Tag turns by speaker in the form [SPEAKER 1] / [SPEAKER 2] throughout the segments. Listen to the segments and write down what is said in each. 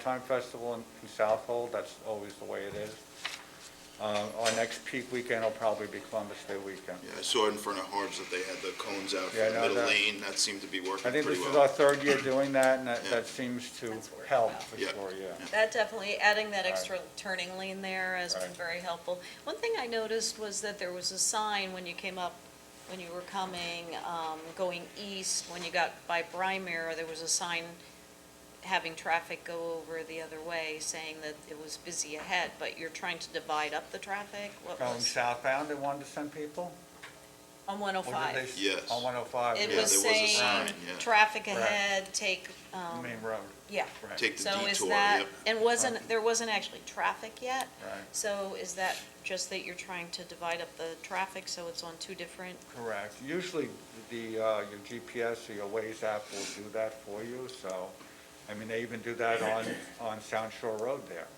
[SPEAKER 1] Time Festival in in Southold, that's always the way it is. Uh, Our next peak weekend will probably be Columbus Day weekend.
[SPEAKER 2] Yeah, I saw in front of Harbs that they had the cones out for
[SPEAKER 1] Yeah,
[SPEAKER 2] the
[SPEAKER 1] no,
[SPEAKER 2] middle
[SPEAKER 1] that-
[SPEAKER 2] lane, that seemed to be
[SPEAKER 1] I
[SPEAKER 2] working
[SPEAKER 1] think this
[SPEAKER 2] pretty
[SPEAKER 1] is our
[SPEAKER 2] well.
[SPEAKER 1] third year doing that, and that
[SPEAKER 2] Yeah.
[SPEAKER 1] that seems to
[SPEAKER 3] That's worked
[SPEAKER 1] help
[SPEAKER 3] well.
[SPEAKER 1] for
[SPEAKER 2] Yeah.
[SPEAKER 1] sure, yeah.
[SPEAKER 3] That definitely, adding that
[SPEAKER 1] Right.
[SPEAKER 3] extra turning lane there has been
[SPEAKER 1] Right.
[SPEAKER 3] very helpful. One thing I noticed was that there was a sign when you came up, when you were coming, um, going east, when you got by Brymere, there was a sign having traffic go over the other way, saying that it was busy ahead, but you're trying to divide up the traffic? What
[SPEAKER 1] Going
[SPEAKER 3] was,
[SPEAKER 1] southbound, they wanted to send people?
[SPEAKER 3] on
[SPEAKER 1] Or did they
[SPEAKER 3] 105?
[SPEAKER 1] s-
[SPEAKER 2] Yes.
[SPEAKER 1] On 105?
[SPEAKER 3] It
[SPEAKER 2] Yeah,
[SPEAKER 3] was
[SPEAKER 2] there was a
[SPEAKER 3] saying,
[SPEAKER 2] sign, yeah.
[SPEAKER 3] traffic
[SPEAKER 1] Right.
[SPEAKER 3] ahead, take, um,
[SPEAKER 1] Main road,
[SPEAKER 3] yeah.
[SPEAKER 1] right.
[SPEAKER 2] Take the
[SPEAKER 3] So is
[SPEAKER 2] detour,
[SPEAKER 3] that,
[SPEAKER 2] yep.
[SPEAKER 3] and wasn't, there wasn't actually traffic yet?
[SPEAKER 1] Right.
[SPEAKER 3] So is that just that you're trying to divide up the traffic so it's on two different?
[SPEAKER 1] Correct. Usually, the, uh, your GPS or your Waze app will do that for you, so, I mean, they even do that on, on Sound Shore Road there.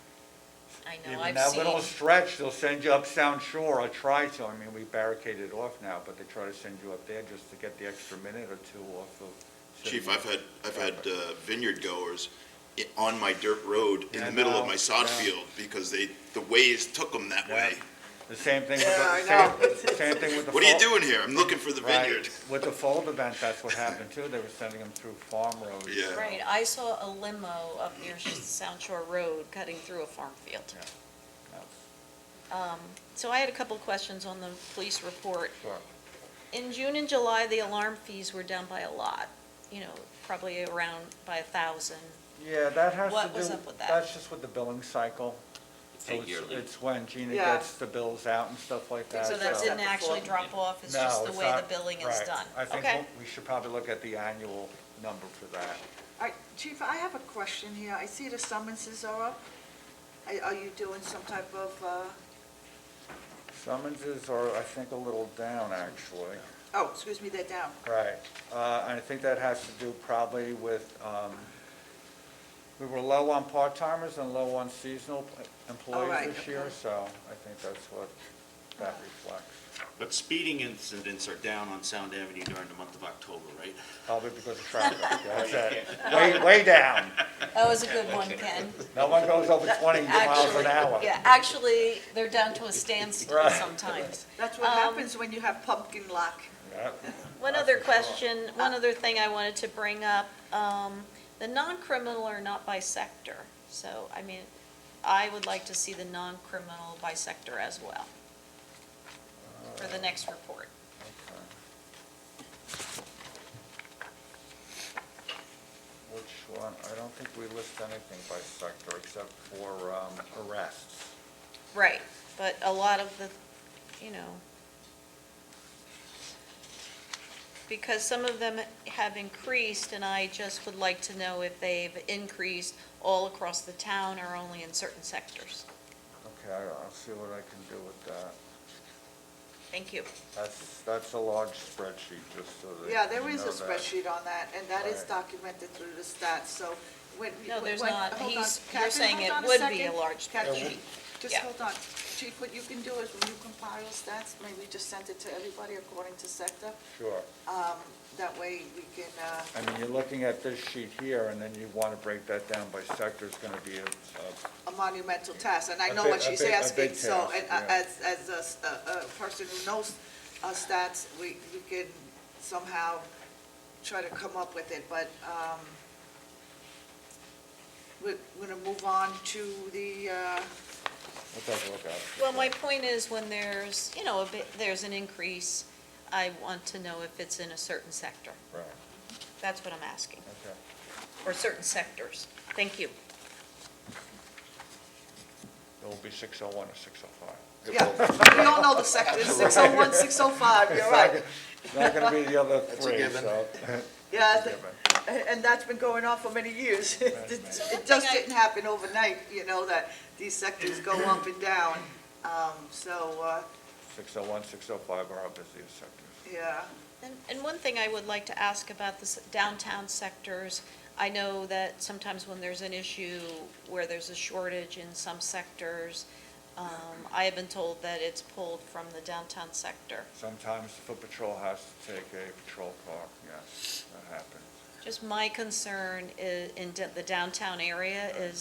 [SPEAKER 3] I know,
[SPEAKER 1] Even
[SPEAKER 3] I've
[SPEAKER 1] that little
[SPEAKER 3] seen,
[SPEAKER 1] stretch, they'll send you up Sound Shore or try to. I mean, we barricaded it off now, but they try to send you up there just to get the extra minute or two off of.
[SPEAKER 2] Chief, I've had, I've had uh, vineyard goers i- on my dirt road in
[SPEAKER 1] Yeah, I
[SPEAKER 2] the middle
[SPEAKER 1] know,
[SPEAKER 2] of my sod
[SPEAKER 1] yeah.
[SPEAKER 2] field because they, the ways took them that
[SPEAKER 1] Yeah.
[SPEAKER 2] way.
[SPEAKER 1] The same thing with
[SPEAKER 4] Yeah, I
[SPEAKER 1] the, same, same thing with the.
[SPEAKER 2] What are you
[SPEAKER 1] fol-
[SPEAKER 2] doing here? I'm looking for the
[SPEAKER 1] Right.
[SPEAKER 2] vineyard.
[SPEAKER 1] With the fold event, that's what happened too. They were sending them through farm roads.
[SPEAKER 2] Yeah.
[SPEAKER 3] right, I saw a limo up near Sound Shore Road cutting through a farm field.
[SPEAKER 1] Yeah.
[SPEAKER 3] So I had a couple questions on the police report.
[SPEAKER 1] Sure.
[SPEAKER 3] In June and July, the alarm fees were down by a lot, you know, probably around by a thousand.
[SPEAKER 1] Yeah, that has to do.
[SPEAKER 3] What was up with that?
[SPEAKER 1] That's just with the billing cycle. So
[SPEAKER 5] Paid
[SPEAKER 1] it's-
[SPEAKER 5] yearly.
[SPEAKER 1] It's when Gina
[SPEAKER 4] Yeah.
[SPEAKER 1] gets the bills out and stuff like that.
[SPEAKER 3] So that
[SPEAKER 4] so-
[SPEAKER 3] didn't actually drop off, it's just
[SPEAKER 1] No,
[SPEAKER 3] the
[SPEAKER 1] it's
[SPEAKER 3] way the
[SPEAKER 1] not-
[SPEAKER 3] billing is
[SPEAKER 1] right.
[SPEAKER 3] done.
[SPEAKER 1] I think
[SPEAKER 3] Okay.
[SPEAKER 1] we'll- we should probably look at the annual number for that.
[SPEAKER 4] All right, Chief, I have a question here. I see the summonses are up. Are- Are you doing some type of, uh,
[SPEAKER 1] Summonses are, I think, a little down, actually.
[SPEAKER 4] oh, excuse me, they're down.
[SPEAKER 1] Right. Uh, And I think that has to do probably with, um, we were low on part-timers and low on seasonal
[SPEAKER 3] Oh,
[SPEAKER 4] right,
[SPEAKER 1] employees this year,
[SPEAKER 4] okay.
[SPEAKER 1] so I think that's what that reflects.
[SPEAKER 5] But speeding incidents are down on Sound Avenue during the month of October, right?
[SPEAKER 1] Probably because of traffic, that's it. Way, way down.
[SPEAKER 3] That was a good one, Ken.
[SPEAKER 1] No one goes over 20 miles an
[SPEAKER 3] Actually,
[SPEAKER 1] hour.
[SPEAKER 3] Yeah, actually, they're down to a standstill
[SPEAKER 1] Right.
[SPEAKER 3] sometimes.
[SPEAKER 4] That's what happens when you have pumpkin luck.
[SPEAKER 1] Yep.
[SPEAKER 3] One
[SPEAKER 1] That's
[SPEAKER 3] other
[SPEAKER 1] for sure.
[SPEAKER 3] question, one other thing I wanted to bring up, um, the non-criminal are not by sector. So, I mean, I would like to see the non-criminal by sector as well for the next report.
[SPEAKER 1] Which one, I don't think we list anything by sector except for um, arrests.
[SPEAKER 3] Right, but a lot of the, you know, because some of them have increased, and I just would like to know if they've increased all across the town or only in certain sectors.
[SPEAKER 1] Okay, I- I'll see what I can do with that.
[SPEAKER 3] Thank you.
[SPEAKER 1] That's, that's a large spreadsheet, just so that.
[SPEAKER 4] Yeah, there
[SPEAKER 1] you
[SPEAKER 4] is a
[SPEAKER 1] know that.
[SPEAKER 4] spreadsheet on that, and that is
[SPEAKER 1] Right.
[SPEAKER 4] documented through the stats, so when.
[SPEAKER 3] No, there's
[SPEAKER 4] when-
[SPEAKER 3] not.
[SPEAKER 4] hold on.
[SPEAKER 3] He's- you're
[SPEAKER 4] Catherine,
[SPEAKER 3] saying
[SPEAKER 4] hold
[SPEAKER 3] it
[SPEAKER 4] on
[SPEAKER 3] would be
[SPEAKER 4] second.
[SPEAKER 3] a large
[SPEAKER 4] Catherine,
[SPEAKER 1] spreadsheet.
[SPEAKER 4] Just
[SPEAKER 3] Yeah.
[SPEAKER 4] hold on. Chief, what you can do is when you compile stats, maybe just send it to everybody according to sector.
[SPEAKER 1] Sure.
[SPEAKER 4] That way we can, uh,
[SPEAKER 1] I mean, you're looking at this sheet here, and then you want to break that down by sector, it's going to be a, a-
[SPEAKER 4] a monumental task, and I
[SPEAKER 1] A
[SPEAKER 4] know
[SPEAKER 1] big-
[SPEAKER 4] what
[SPEAKER 1] a
[SPEAKER 4] she's
[SPEAKER 1] big- a
[SPEAKER 4] asking,
[SPEAKER 1] big
[SPEAKER 4] so,
[SPEAKER 1] task,
[SPEAKER 4] and uh,
[SPEAKER 1] yeah.
[SPEAKER 4] as, as a s- a, a person who knows uh, stats, we, we can somehow try to come up with it, but, um, we're, we're gonna move on to the, uh,
[SPEAKER 1] we'll take a look at it.
[SPEAKER 3] Well, my point is when there's, you know, a bit, there's an increase, I want to know if it's in a certain sector.
[SPEAKER 1] Right,
[SPEAKER 3] That's what I'm asking,
[SPEAKER 1] okay.
[SPEAKER 3] or certain sectors. Thank you.
[SPEAKER 1] It will be 601 or 605.
[SPEAKER 4] yeah, we all know the sectors, six oh one, six oh five, you're right.
[SPEAKER 1] It's not going to be the other
[SPEAKER 5] a
[SPEAKER 1] three,
[SPEAKER 5] given.
[SPEAKER 1] so.
[SPEAKER 4] Yeah,
[SPEAKER 1] That's a
[SPEAKER 4] th-
[SPEAKER 1] given.
[SPEAKER 4] and, and that's been going on for many years. It it
[SPEAKER 3] thing
[SPEAKER 4] just
[SPEAKER 3] I-
[SPEAKER 4] didn't happen overnight, you know, that these sectors go up and down, um, so, uh,
[SPEAKER 1] 601, 605 are our busiest sectors.
[SPEAKER 4] Yeah,
[SPEAKER 3] And, and one thing I would like to ask about the s- downtown sectors, I know that sometimes when there's an issue where there's a shortage in some sectors, um, I have been told that it's pulled from the downtown sector.
[SPEAKER 1] Sometimes the foot patrol has to take a patrol car, yes, that happens.
[SPEAKER 3] Just my concern i- in d- the downtown area is